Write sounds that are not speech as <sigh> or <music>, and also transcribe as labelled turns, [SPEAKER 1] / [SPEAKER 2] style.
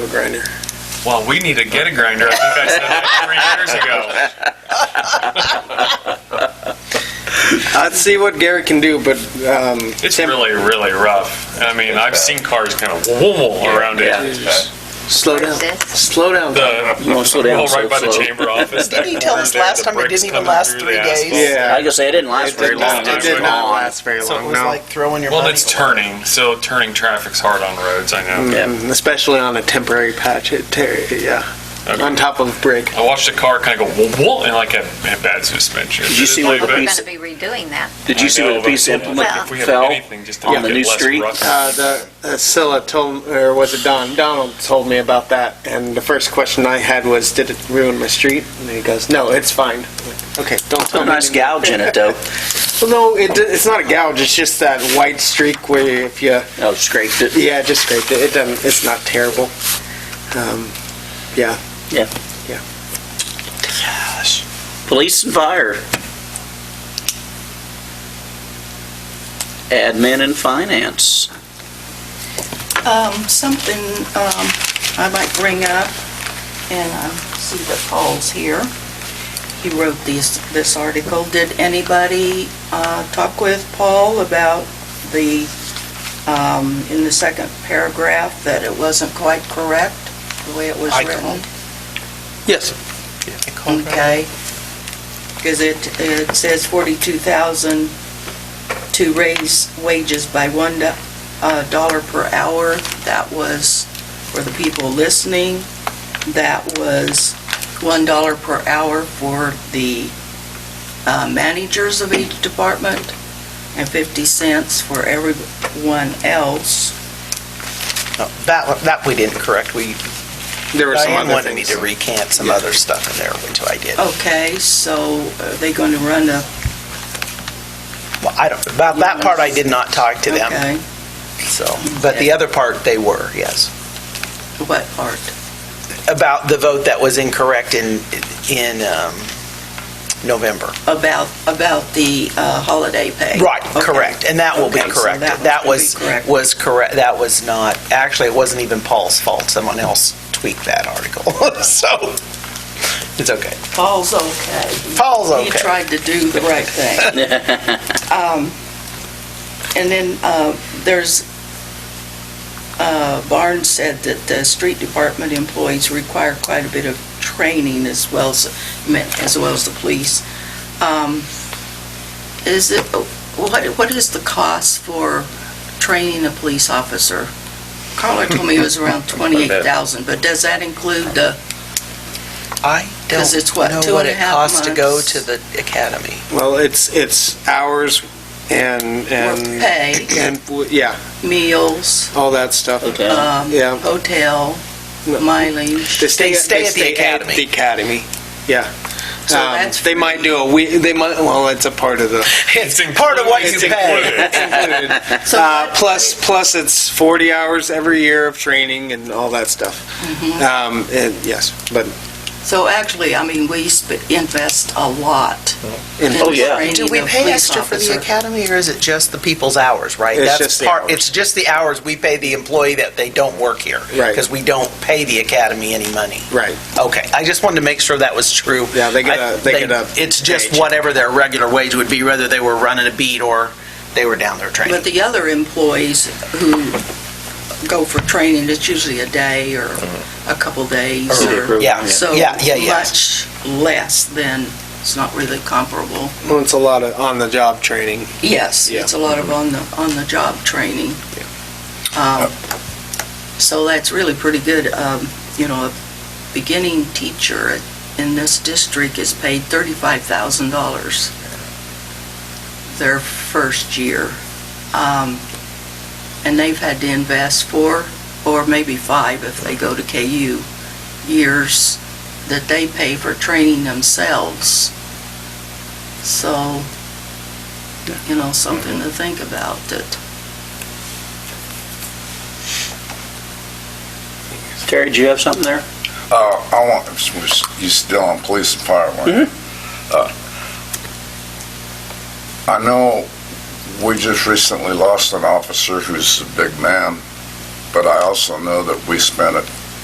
[SPEAKER 1] grinder.
[SPEAKER 2] Well, we need to get a grinder. I think I said
[SPEAKER 3] <laughs>
[SPEAKER 2] that
[SPEAKER 1] I'd see what Garrett can do, but um,
[SPEAKER 2] three years ago. It's really, really rough. I mean, I've seen cars kind of wobble around
[SPEAKER 4] Yeah.
[SPEAKER 2] it.
[SPEAKER 1] slow down. Slow down.
[SPEAKER 2] The
[SPEAKER 3] You want to slow down
[SPEAKER 2] oh,
[SPEAKER 3] so
[SPEAKER 2] right by the
[SPEAKER 3] slow.
[SPEAKER 2] chamber office.
[SPEAKER 5] <laughs> Didn't he
[SPEAKER 2] that
[SPEAKER 5] tell
[SPEAKER 2] corner
[SPEAKER 5] us
[SPEAKER 2] there,
[SPEAKER 5] last
[SPEAKER 2] the
[SPEAKER 5] time it
[SPEAKER 2] bricks
[SPEAKER 5] didn't even
[SPEAKER 2] coming
[SPEAKER 5] last
[SPEAKER 2] through
[SPEAKER 5] three
[SPEAKER 2] the
[SPEAKER 5] days?
[SPEAKER 2] asphalt.
[SPEAKER 1] yeah.
[SPEAKER 3] Like I say, it didn't last
[SPEAKER 1] It
[SPEAKER 3] very
[SPEAKER 1] did
[SPEAKER 3] long.
[SPEAKER 1] not- It did not
[SPEAKER 3] Oh,
[SPEAKER 1] last very
[SPEAKER 5] So it
[SPEAKER 1] long,
[SPEAKER 5] was
[SPEAKER 1] Oh, no.
[SPEAKER 5] like throwing your
[SPEAKER 2] Well,
[SPEAKER 5] money
[SPEAKER 2] it's
[SPEAKER 5] away.
[SPEAKER 2] turning, so turning traffic's hard on roads, I know.
[SPEAKER 3] Yeah.
[SPEAKER 1] Mm, Especially on a temporary patch, it tear, yeah,
[SPEAKER 2] Okay.
[SPEAKER 1] on top of brick.
[SPEAKER 2] I watched a car kind of go whoa, and like had, had bad suspension.
[SPEAKER 3] Did you see
[SPEAKER 2] Like, but-
[SPEAKER 3] what the
[SPEAKER 6] We're
[SPEAKER 3] piece-
[SPEAKER 6] gonna be redoing that.
[SPEAKER 3] Did you
[SPEAKER 2] I
[SPEAKER 3] see
[SPEAKER 2] know,
[SPEAKER 3] where the
[SPEAKER 2] but if
[SPEAKER 3] piece
[SPEAKER 2] we
[SPEAKER 3] implement
[SPEAKER 6] Well,
[SPEAKER 2] have
[SPEAKER 3] fell
[SPEAKER 2] anything, just to
[SPEAKER 3] on
[SPEAKER 2] make
[SPEAKER 3] the
[SPEAKER 2] it
[SPEAKER 3] new
[SPEAKER 2] less
[SPEAKER 3] street?
[SPEAKER 2] rough.
[SPEAKER 1] Uh, the uh, Scylla told, or was it Don? Donald told me about that, and the first question I had was, "Did it ruin my street?" And he goes, "No, it's fine." Okay, don't tell
[SPEAKER 3] Put
[SPEAKER 1] me.
[SPEAKER 3] a nice
[SPEAKER 1] anymore.
[SPEAKER 3] gouge in
[SPEAKER 1] <laughs>
[SPEAKER 3] it though.
[SPEAKER 1] Well, no, it, it's not a gouge. It's just that white streak where if you
[SPEAKER 3] Oh, scraped it.
[SPEAKER 1] Yeah, just scraped it. It doesn't, it's not terrible. Um, yeah.
[SPEAKER 3] Yeah.
[SPEAKER 1] Yeah.
[SPEAKER 3] Police and fire. Admin and finance.
[SPEAKER 5] Um, something, um, I might bring up, and I see that Paul's here. He wrote these, this article. Did anybody, uh, talk with Paul about the, um, in the second paragraph, that it wasn't quite correct, the way it was
[SPEAKER 2] I
[SPEAKER 5] written?
[SPEAKER 1] Yes.
[SPEAKER 5] Okay. Because it, E it says 42,000 to raise wages by one do- uh, dollar per hour. That was, for the people listening, that was one dollar per hour for the uh, managers of each department and 50 cents for everyone else.
[SPEAKER 4] That, one- that we didn't correct. We,
[SPEAKER 1] There were some
[SPEAKER 4] Diane
[SPEAKER 1] other
[SPEAKER 4] wanted me
[SPEAKER 1] things.
[SPEAKER 4] to recant some other stuff in there, which I did.
[SPEAKER 5] Okay, so are they going to run a
[SPEAKER 4] Well, I don't, about that part, I did not talk to them,
[SPEAKER 5] Okay,
[SPEAKER 4] so. But the other part, they were, yes.
[SPEAKER 5] what part?
[SPEAKER 4] About the vote that was incorrect in, in um, November.
[SPEAKER 5] About, about the uh, holiday pay.
[SPEAKER 4] Right,
[SPEAKER 5] Okay.
[SPEAKER 4] correct. And that will be
[SPEAKER 5] Okay, so
[SPEAKER 4] corrected.
[SPEAKER 5] one's
[SPEAKER 4] That
[SPEAKER 5] gonna
[SPEAKER 4] was,
[SPEAKER 5] be correct.
[SPEAKER 4] was correct, that was not, actually, it wasn't even Paul's fault. Someone else tweaked that article, <laughs> so it's okay.
[SPEAKER 5] Paul's okay.
[SPEAKER 4] Paul's
[SPEAKER 5] He
[SPEAKER 4] okay.
[SPEAKER 5] tried to do the right thing. Um, And then uh, there's, uh, Barnes said that the street department employees require quite a bit of training as well as, as well as the police. Um, Is it, what, what is the cost for training a police officer? Carla told me it
[SPEAKER 4] <laughs>
[SPEAKER 5] was around 28,000, but does that include the,
[SPEAKER 4] I
[SPEAKER 5] 'Cause it's what,
[SPEAKER 4] don't
[SPEAKER 5] two
[SPEAKER 4] know what
[SPEAKER 5] and a
[SPEAKER 4] it
[SPEAKER 5] half
[SPEAKER 4] costs to go
[SPEAKER 5] months?
[SPEAKER 4] to the academy.
[SPEAKER 1] Well, it's, it's hours and,
[SPEAKER 5] or
[SPEAKER 1] and,
[SPEAKER 5] pay,
[SPEAKER 1] and, w- yeah,
[SPEAKER 5] meals,
[SPEAKER 1] all that stuff.
[SPEAKER 3] Hotel.
[SPEAKER 5] um,
[SPEAKER 1] Yeah.
[SPEAKER 5] hotel, mileage?
[SPEAKER 4] They stay at the academy.
[SPEAKER 1] The academy, yeah.
[SPEAKER 5] So
[SPEAKER 1] Um,
[SPEAKER 5] that's
[SPEAKER 1] They might do a week, they might, well, it's a part
[SPEAKER 4] <laughs>
[SPEAKER 1] of the.
[SPEAKER 2] <laughs> It's
[SPEAKER 4] part of what
[SPEAKER 2] included.
[SPEAKER 4] you
[SPEAKER 2] It's
[SPEAKER 4] pay.
[SPEAKER 2] included.
[SPEAKER 5] So
[SPEAKER 1] Uh,
[SPEAKER 5] what-
[SPEAKER 1] plus, plus it's 40 hours every year of training and all that stuff.
[SPEAKER 4] Mm-hmm.
[SPEAKER 1] Um, and yes, but
[SPEAKER 5] So actually, I mean, we sp- invest a lot in
[SPEAKER 3] Oh, yeah.
[SPEAKER 5] training
[SPEAKER 4] Do we
[SPEAKER 5] of
[SPEAKER 4] pay
[SPEAKER 5] police
[SPEAKER 4] extra for the
[SPEAKER 5] officer.
[SPEAKER 4] academy, or is it just the people's hours, right?
[SPEAKER 1] It's
[SPEAKER 4] That's
[SPEAKER 1] just the
[SPEAKER 4] part-
[SPEAKER 1] hours.
[SPEAKER 4] It's just the hours we pay the employee that they don't work here.
[SPEAKER 1] Right.
[SPEAKER 4] Because we don't pay the academy any money.
[SPEAKER 1] Right.
[SPEAKER 4] Okay, I just wanted to make sure that was true.
[SPEAKER 1] Yeah, they get
[SPEAKER 4] I-
[SPEAKER 1] a- they get a
[SPEAKER 4] It's just
[SPEAKER 1] wage.
[SPEAKER 4] whatever their regular wage would be, whether they were running a beat or they were down there
[SPEAKER 5] But
[SPEAKER 4] training.
[SPEAKER 5] the other employees who go for training, it's usually a day or a couple days or,
[SPEAKER 4] Yeah,
[SPEAKER 5] so
[SPEAKER 4] yeah, yeah, yeah.
[SPEAKER 5] much less than, it's not really comparable.
[SPEAKER 1] well, it's a lot of on-the-job training.
[SPEAKER 5] Yes,
[SPEAKER 1] Yeah.
[SPEAKER 5] it's a lot of on the, on the job training. Um, So that's really pretty good. Um, You know, a beginning teacher in this district is paid $35,000 their first year. Um, And they've had to invest four, or maybe five if they go to KU, years that they pay for training themselves. So you know, something to think about that.
[SPEAKER 3] Terry, do you have something there?
[SPEAKER 7] Uh, I want, you still on police and fire, weren't you? Uh, I know we just recently lost an officer who's a big man, but I also know that we spent a